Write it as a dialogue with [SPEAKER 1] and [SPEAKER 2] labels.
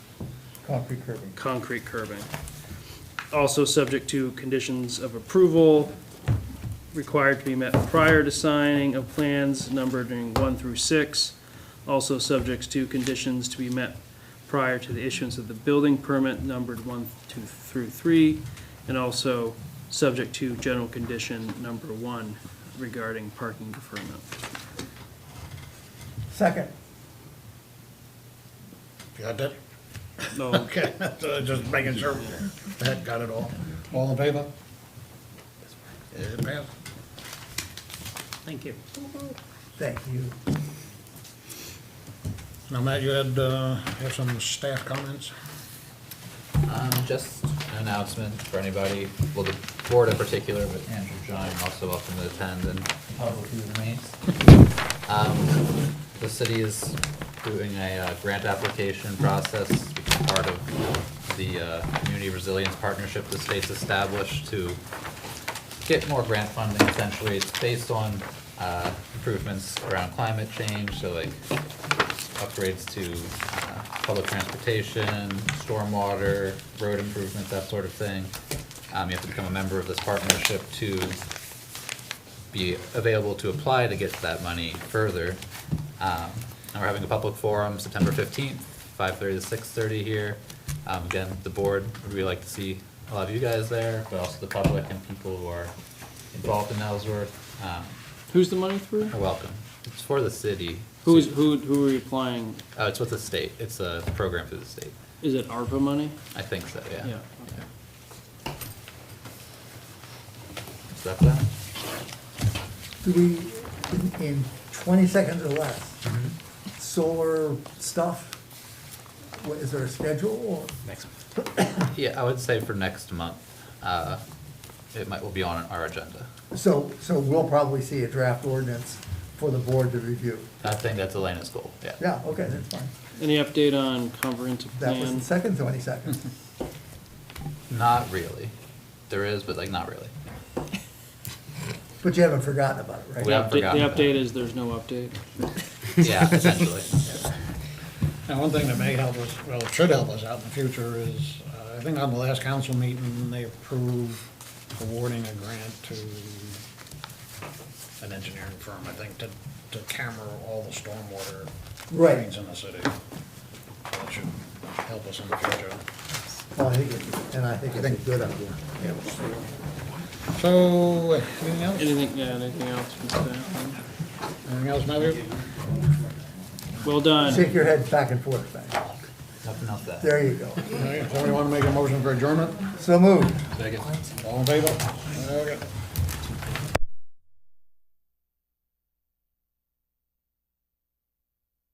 [SPEAKER 1] Concrete curbing.
[SPEAKER 2] concrete curbing. Also subject to conditions of approval required to be met prior to signing of plans numbering one through six. Also subject to conditions to be met prior to the issuance of the building permit numbered one, two, through three. And also subject to general condition number one regarding parking deferment.
[SPEAKER 1] Second.
[SPEAKER 3] Got that?
[SPEAKER 2] No,
[SPEAKER 3] Okay, so just making sure that got it all. All in favor? It passed.
[SPEAKER 2] thank you.
[SPEAKER 1] Thank you.
[SPEAKER 3] Now, Matt, you had, uh, have some staff comments?
[SPEAKER 4] Um, just an announcement for anybody, well, the board in particular, but Andrew John also welcome to attend and public who remains. Um, the city is doing a uh, grant application process, which is part of the, uh, Community Resilience Partnership the state's established to get more grant funding essentially. It's based on, uh, improvements around climate change, so like upgrades to uh, public transportation, stormwater, road improvements, that sort of thing. Um, You have to become a member of this partnership to be available to apply to get that money further. Um, And we're having a public forum September 15th, 5:30 to 6:30 here. Um, Again, the board, we'd really like to see a lot of you guys there, but also the public and people who are involved in Ellsworth um,
[SPEAKER 2] Who's the money through?
[SPEAKER 4] are welcome. It's for the city.
[SPEAKER 2] Who's, who, who are you applying?
[SPEAKER 4] Uh, it's with the state. It's a program through the state.
[SPEAKER 2] Is it ARPA money?
[SPEAKER 4] I think so, yeah.
[SPEAKER 2] Yeah, okay.
[SPEAKER 4] Is that that?
[SPEAKER 1] Do we, in- in twenty seconds or less, solar stuff, what, is there a schedule or?
[SPEAKER 4] Next. Yeah, I would say for next month, uh, it might, will be on our agenda.
[SPEAKER 1] So, so we'll probably see a draft ordinance for the board to review.
[SPEAKER 4] I think that's Elena's goal, yeah.
[SPEAKER 1] Yeah, okay, that's fine.
[SPEAKER 2] Any update on comprehensive
[SPEAKER 1] That was the
[SPEAKER 2] plan?
[SPEAKER 1] second twenty seconds.
[SPEAKER 4] Not really. There is, but like, not really.
[SPEAKER 1] But you haven't forgotten about it, right?
[SPEAKER 4] We haven't
[SPEAKER 2] The
[SPEAKER 4] forgotten about
[SPEAKER 2] update
[SPEAKER 4] it.
[SPEAKER 2] is there's no update.
[SPEAKER 4] Yeah, essentially.
[SPEAKER 3] Now, one thing that may help us, well, should help us out in the future is, uh, I think on the last council meeting, they approved awarding a grant to an engineering firm, I think, to, to camera all the stormwater
[SPEAKER 1] Right.
[SPEAKER 3] drains in the city. That should help us in the future.
[SPEAKER 1] Well, I think, it- and I think it's a good idea.
[SPEAKER 3] So, anything else?
[SPEAKER 2] Anything, yeah, anything else from staff?
[SPEAKER 3] Anything else, Matthew?
[SPEAKER 2] Well done.
[SPEAKER 1] Shake your head back and forth, man.
[SPEAKER 4] Nothing else that.
[SPEAKER 1] There you go.
[SPEAKER 3] All right, Somebody want to make a motion for adjournment?
[SPEAKER 1] So moved.
[SPEAKER 4] Second.
[SPEAKER 3] All in favor? Okay.